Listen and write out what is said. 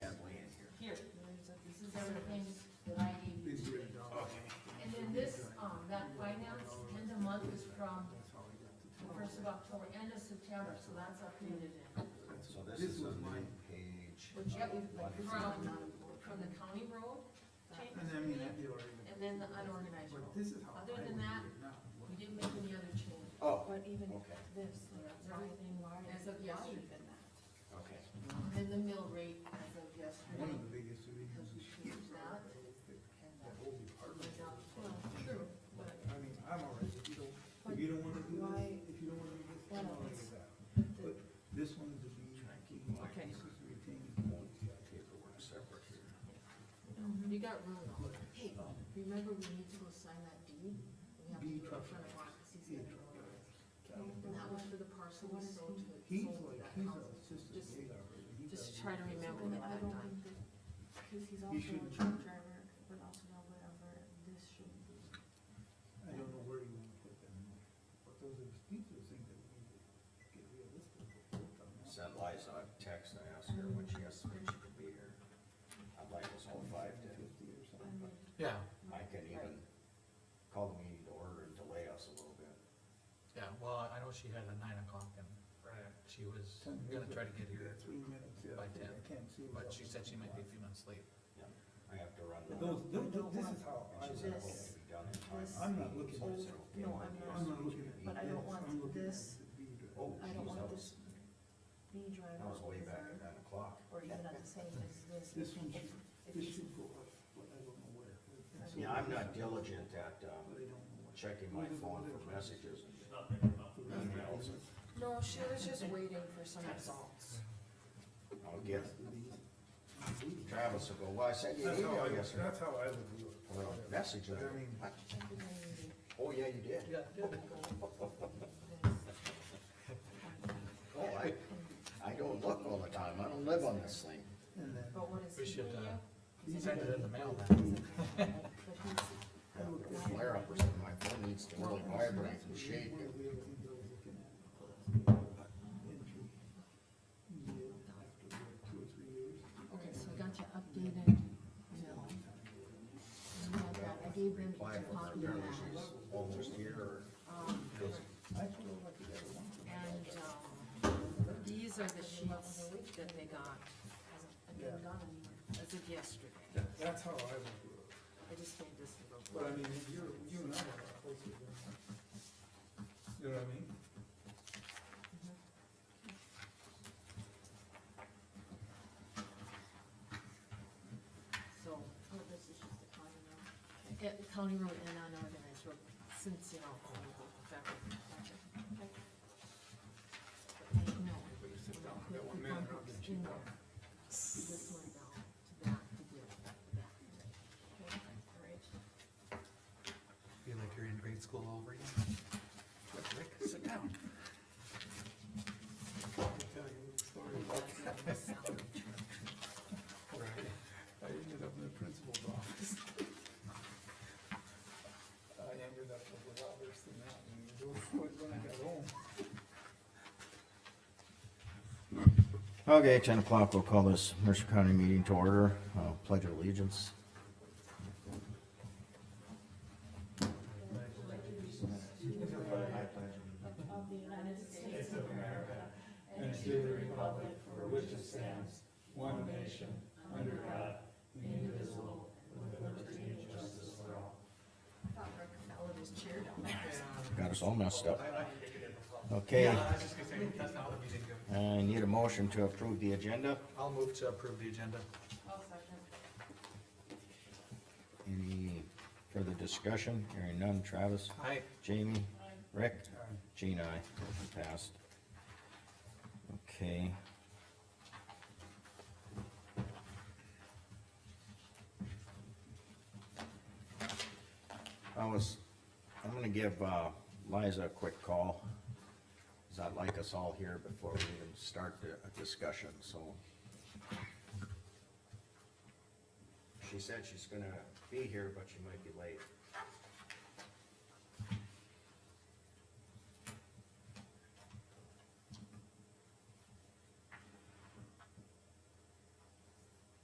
um, till the end of September, so that's updated in. So this This is was on mine. the page. Which, uh, one from, from the county road And I mean, that'd change, be already. and then the unorganized But road. this is how I Other would do than it that- now. We didn't make any other change. Oh, But even okay, this, everything As of yesterday. okay. And then the mill rate as of One yesterday, of the biggest because reasons we is changed that. and that that whole department. was out. Well, True, but I mean, I'm all right, if you don't, if you don't wanna do this, if you don't wanna do this, I'm all right with that. But this one to be. Okay. This is retaining. Paperwork separate here. you got ruined all over. Hey, remember we need to go sign that deed? We have to do Deed it in truck front of Mark, because he's Deed gonna truck ruin it. And that was Well, for the parcel we sold to, He's sold to like, that he's house. a assistant Just- data operator. He Just does- try to remember to get I that don't done. think that, because he's also should- a truck driver, but also not whatever, this should be. I don't know where you wanna put them, but those are, these are things that we need to get realistic. about. Sent Liza a text, I asked her when she estimates she could be here. I'd like us all five to, Fifty or I something. mean, Yeah, I can even call the meeting to order and delay us a little bit. yeah, well, I know she had a nine o'clock and she was Ten gonna minutes. try to get here, Three minutes, yeah, By I think I ten. can't see. but without she said she might be a few minutes late. I have to run. But Those, those- those- this is how I. And she said, would- "Hope to be done in time." This- I'm not looking So I said, Oh, "Okay, no, when I'm do you not. I'm not looking at. But I don't want I'm looking at this- the beat. Oh, I don't geez, that want was, this B that driver was way back at over, nine o'clock. or even at the same as this. This one If- should, if this he's- should go up, but I don't know where. And so- Yeah, I'm not diligent at, um, But I don't know what. checking my phone for messages and emails. No, she was just waiting for some results. I'll get, That's how Travis will go, well, I sent you an I, email yesterday. that's how I would do it. Or a message. and I I mean- went, "What? I think I need to- Oh, yeah, you did. Yeah. Oh, I, I don't look all the time. I don't live on this thing. And then, But what is We he should, doing uh, now? He's send it in the mail But then. he's, I look at Flare up or something. My phone needs to really vibrate and shake. one of the other things I was looking at. Entry. Year after year, two or three years. Okay, so I got your updated mill. And I got- I gave them Apply a for copy their of parents that. almost here or Um, I put all that together once. And, um, these are the sheets that they got Yeah. as of yesterday. That- That's how I would do it. I just made this a little. But I mean, if you're, you and I are closer than. You know what I mean? So, oh, this is just a county road. Yeah, county road and unorganized road, since, you know, all of the fact that. But I know. we put the bump ups in there. This one down to that to get that. Alright. Feel like you're in grade school over again. Rick, sit down. I can tell you a story about, I ended up in the principal's office. I ended up with a lot worse than that, and it was when I got home. Okay, ten o'clock, we'll call this Mercer County meeting to order, uh, pledge of allegiance. Ellen is cheered on. Got us all messed up. Okay, I was just gonna say, that's not what we did. I need a motion to approve the agenda. I'll move to approve the agenda. Any further discussion? Hearing none. Travis? Aye. Jamie? Rick? Jean, aye. Motion passed. Okay. I was, I'm gonna give uh, Liza a quick call, cause I'd like us all here before we even start the a discussion, so. She said she's gonna be here, but she might be late.